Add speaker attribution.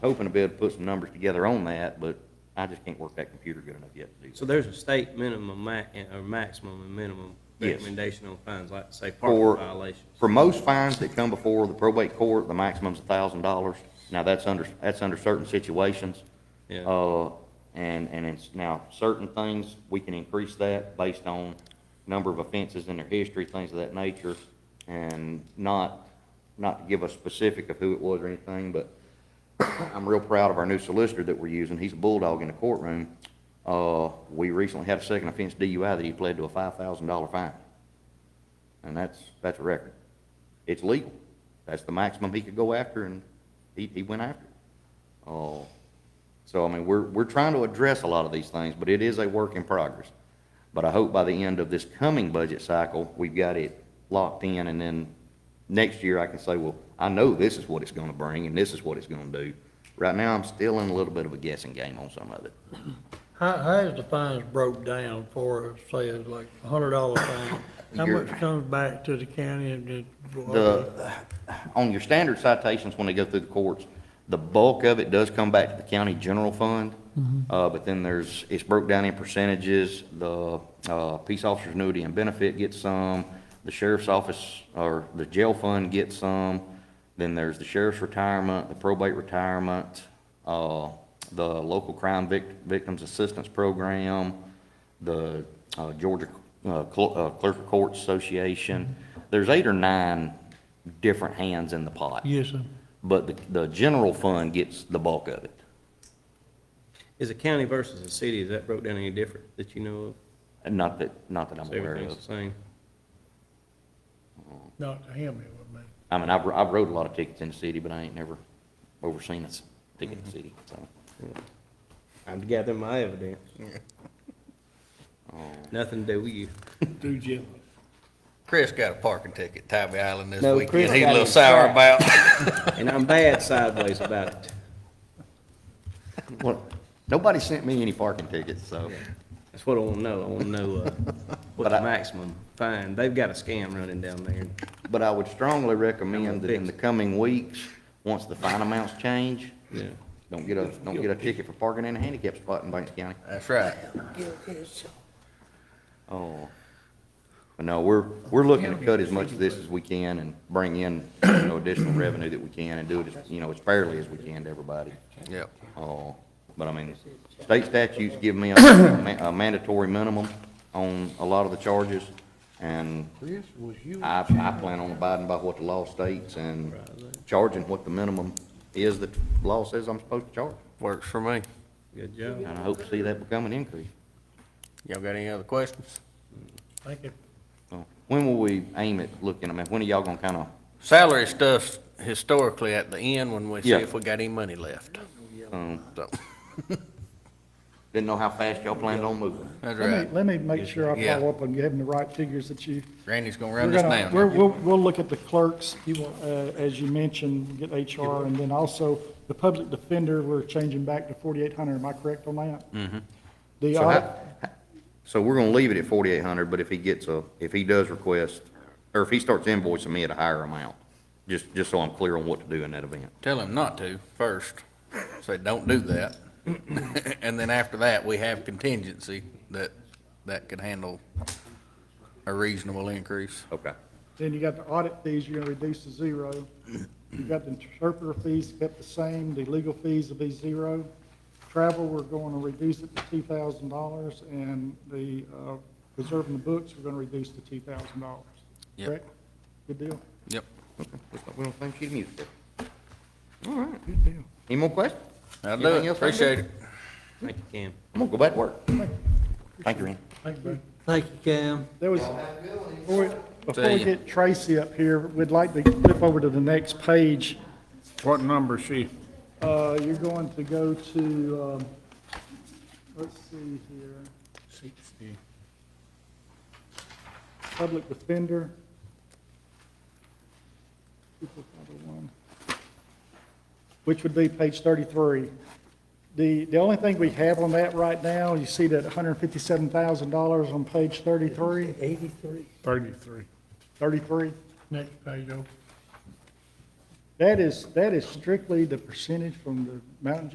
Speaker 1: hoping to be able to put some numbers together on that, but I just can't work that computer good enough yet to do
Speaker 2: So
Speaker 1: that.
Speaker 2: there's a state minimum ma, or maximum and minimum
Speaker 1: Yes.
Speaker 2: recommendation on fines, like say
Speaker 1: For-
Speaker 2: parking violations.
Speaker 1: For most fines that come before the probate court, the maximum's a thousand dollars. Now, that's under, that's under certain situations.
Speaker 2: Yeah.
Speaker 1: Uh, and, and it's now, certain things, we can increase that based on number of offenses in their history, things of that nature, and not, not to give a specific of who it was or anything, but I'm real proud of our new solicitor that we're using. He's a bulldog in the courtroom. Uh, we recently had a second offense DUI that he pled to a five thousand dollar fine. And that's, that's a record. It's legal. That's the maximum he could go after, and he, he went after it. Oh, so I mean, we're, we're trying to address a lot of these things, but it is a work in progress. But I hope by the end of this coming budget cycle, we've got it locked in, and then next year I can say, well, I know this is what it's gonna bring, and this is what it's gonna do. Right now, I'm still in a little bit of a guessing game on some of it.
Speaker 3: How, how is the fines broke down for, say, it's like a hundred dollar fine? How
Speaker 1: You're-
Speaker 3: much comes back to the county and then?
Speaker 1: The, on your standard citations, when they go through the courts, the bulk of it does come back to the county general fund. Uh, but then there's, it's broke down in percentages. The, uh, peace officer's annuity and benefit gets some. The sheriff's office, or the jail fund gets some. Then there's the sheriff's retirement, the probate retirement, uh, the local crime vic- victims assistance program, the uh, Georgia uh, Cl- uh, Clerk of Courts Association. There's eight or nine different hands in the pot.
Speaker 3: Yes, sir.
Speaker 1: But the, the general fund gets the bulk of it.
Speaker 2: Is a county versus a city, is that broke down any different that you know of?
Speaker 1: And Not that, not that I'm
Speaker 2: So
Speaker 1: aware
Speaker 2: everything's
Speaker 1: of.
Speaker 2: the same?
Speaker 3: Not to him, it would be.
Speaker 1: I mean, I've, I've rode a lot of tickets in the city, but I ain't never overseen a s- ticket in the city, so.
Speaker 2: I'm gathering my evidence.
Speaker 1: Oh.
Speaker 2: Nothing to do with you.
Speaker 3: Do Jim.
Speaker 4: Chris got a parking ticket, Tybee Island this
Speaker 2: No, Chris
Speaker 4: weekend. He's a
Speaker 2: got
Speaker 4: little
Speaker 2: his
Speaker 4: sour
Speaker 2: stripes.
Speaker 4: about.
Speaker 2: And I'm bad sideways about it.
Speaker 1: Well, nobody sent me any parking tickets, so.
Speaker 2: That's what I want to know. I want to know uh, what
Speaker 1: But I-
Speaker 2: the maximum fine. They've got a scam running down there.
Speaker 1: But I would strongly recommend that in
Speaker 2: fix
Speaker 1: the
Speaker 2: it.
Speaker 1: coming weeks, once the fine amounts change,
Speaker 2: Yeah.
Speaker 1: don't get a, don't get a ticket for parking in a handicap spot in Banks County.
Speaker 4: That's right.
Speaker 1: Oh. But no, we're, we're looking to cut as much of this as we can and bring in, you know, additional revenue that we can and do it, as you know, as fairly as we can to everybody.
Speaker 4: Yep.
Speaker 1: Oh, but I mean, state statutes give me a ma- a mandatory minimum on a lot of the charges, and I, I plan on abiding by what the law states and charging what the minimum is that the law says I'm supposed to charge.
Speaker 4: Works for me.
Speaker 2: Good job.
Speaker 1: And I hope to see that become an increase.
Speaker 4: Y'all got any other questions?
Speaker 3: Thank you.
Speaker 1: So, When will we aim at looking, I mean, when are y'all gonna kinda
Speaker 4: Salary stuff's historically at the end when we see
Speaker 1: Yeah.
Speaker 4: if we got any money left.
Speaker 1: Um,
Speaker 4: So,
Speaker 1: Didn't know how fast y'all planned on moving.
Speaker 4: that's
Speaker 5: Let
Speaker 4: right.
Speaker 5: me, let me make sure I
Speaker 4: Yeah.
Speaker 5: follow up on having the right figures that you.
Speaker 4: Randy's gonna
Speaker 5: we're
Speaker 4: run this
Speaker 5: gonna-
Speaker 4: down.
Speaker 5: We're, we'll, we'll look at the clerks, uh, as you mentioned, get HR, and then also the public defender, we're changing back to forty-eight hundred, am I correct on that? Mm-hmm. The,
Speaker 1: So
Speaker 5: audit-
Speaker 1: how, so we're gonna leave it at forty-eight hundred, but if he gets a, if he does request, or if he starts invoicing me at a higher amount, just, just so I'm clear on what to do in that event.
Speaker 4: Tell him not to first. Say, don't do that. And then after that, we have contingency that, that could handle a reasonable increase.
Speaker 1: Okay.
Speaker 5: then you got the audit fees, you're gonna reduce to zero. You've got the interpreter fees kept the same, the legal fees will be zero. Travel, we're going to reduce it to two thousand dollars, and the, uh, preserving the books, we're gonna reduce to two thousand dollars.
Speaker 4: Yep.
Speaker 5: Correct? Good deal.
Speaker 4: Yep,
Speaker 1: Looks like we don't think she's music. All right, good deal. Any more questions?
Speaker 4: I'll do
Speaker 1: Anything
Speaker 4: it.
Speaker 1: else, Randy?
Speaker 4: Appreciate it.
Speaker 2: Thank you, Cam.
Speaker 1: I'm gonna go back to work. Thank you, Randy.
Speaker 5: Thank you, bud.
Speaker 2: Thank you, Cam.
Speaker 5: There was, before we- before
Speaker 4: See
Speaker 5: we
Speaker 4: ya.
Speaker 5: get Tracy up here, we'd like to flip over to the next page.
Speaker 6: What number is she?
Speaker 5: Uh, You're going to go to, um, let's see here,
Speaker 6: Sixty.
Speaker 5: public defender. 24,501, Which would be page 33. The, the only thing we have on that right now, you see that $157,000 on page 33,
Speaker 3: Eighty-three.
Speaker 6: 33.
Speaker 5: 33?
Speaker 3: Next page, oh.
Speaker 5: That is, that is strictly the percentage from the Mountain